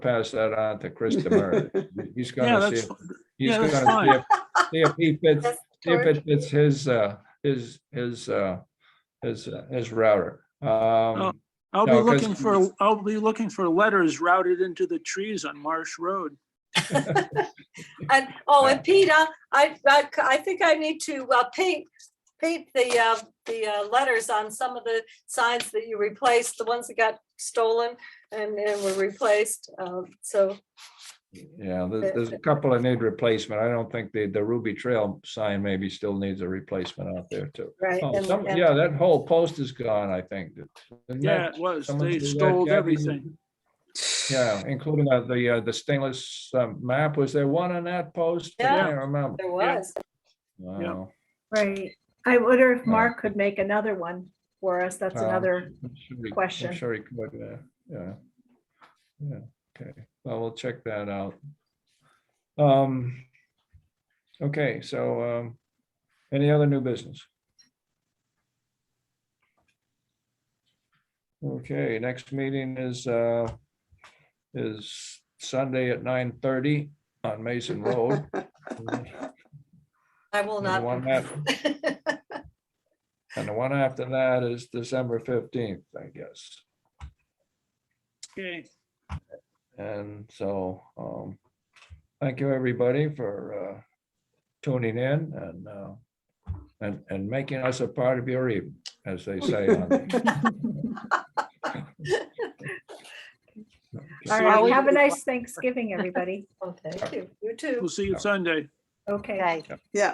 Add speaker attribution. Speaker 1: pass that on to Chris Demers. He's
Speaker 2: Yeah,
Speaker 1: gonna
Speaker 2: that's,
Speaker 1: see,
Speaker 2: fi-
Speaker 1: he's
Speaker 2: yeah,
Speaker 1: gonna
Speaker 2: that's
Speaker 1: see if, see if he fits,
Speaker 3: Yes,
Speaker 1: see if
Speaker 3: George.
Speaker 1: it fits his, uh, his, his, uh, his, uh, his router.
Speaker 2: Oh.
Speaker 1: Um,
Speaker 2: I'll be
Speaker 1: No, 'cause-
Speaker 2: looking for, I'll be looking for letters routed into the trees on Marsh Road.
Speaker 3: And, oh, and Peter, I, I, I think I need to uh, paint, paint the, uh, the uh, letters on some of the signs that you replaced, the ones that got stolen and and were replaced. Um, So,
Speaker 1: yeah, there's, there's a couple that need replacement. I don't think the, the Ruby Trail sign maybe still needs a replacement out there too.
Speaker 3: right.
Speaker 1: Oh,
Speaker 3: and-
Speaker 1: some-
Speaker 3: and-
Speaker 1: Yeah, that whole post is gone, I think. Isn't
Speaker 2: Yeah,
Speaker 1: that-
Speaker 2: it was.
Speaker 1: someone
Speaker 2: They
Speaker 1: do that,
Speaker 2: stole
Speaker 1: Kathy?
Speaker 2: everything.
Speaker 1: Yeah, including uh, the, uh, the stainless um, map. Was there one on that post? I
Speaker 3: Yeah.
Speaker 1: can't remember.
Speaker 3: There was.
Speaker 1: Wow.
Speaker 4: Right. I wonder if
Speaker 1: Yeah.
Speaker 4: Mark could make another one for us. That's
Speaker 1: Um,
Speaker 4: another,
Speaker 1: I'm sure he- I'm
Speaker 4: question.
Speaker 1: Sure, he could, uh, yeah. Yeah, okay, well, we'll check that out. Um, okay, so, um, any other new business? Okay, next meeting is, uh, is Sunday at nine thirty on Mason Road.
Speaker 3: I will
Speaker 1: And
Speaker 3: not.
Speaker 1: the one And the one after that is December fifteenth, I guess.
Speaker 2: Okay,
Speaker 1: And so, um, thank you, everybody, for, uh, tuning in and, uh, and, and making us a part of your evening, as they say. on the-
Speaker 4: all
Speaker 2: Sorry.
Speaker 4: right, have a nice Thanksgiving, everybody.
Speaker 3: Oh, Thank you. You too.
Speaker 2: we'll see you Sunday.
Speaker 4: Okay.
Speaker 5: Okay.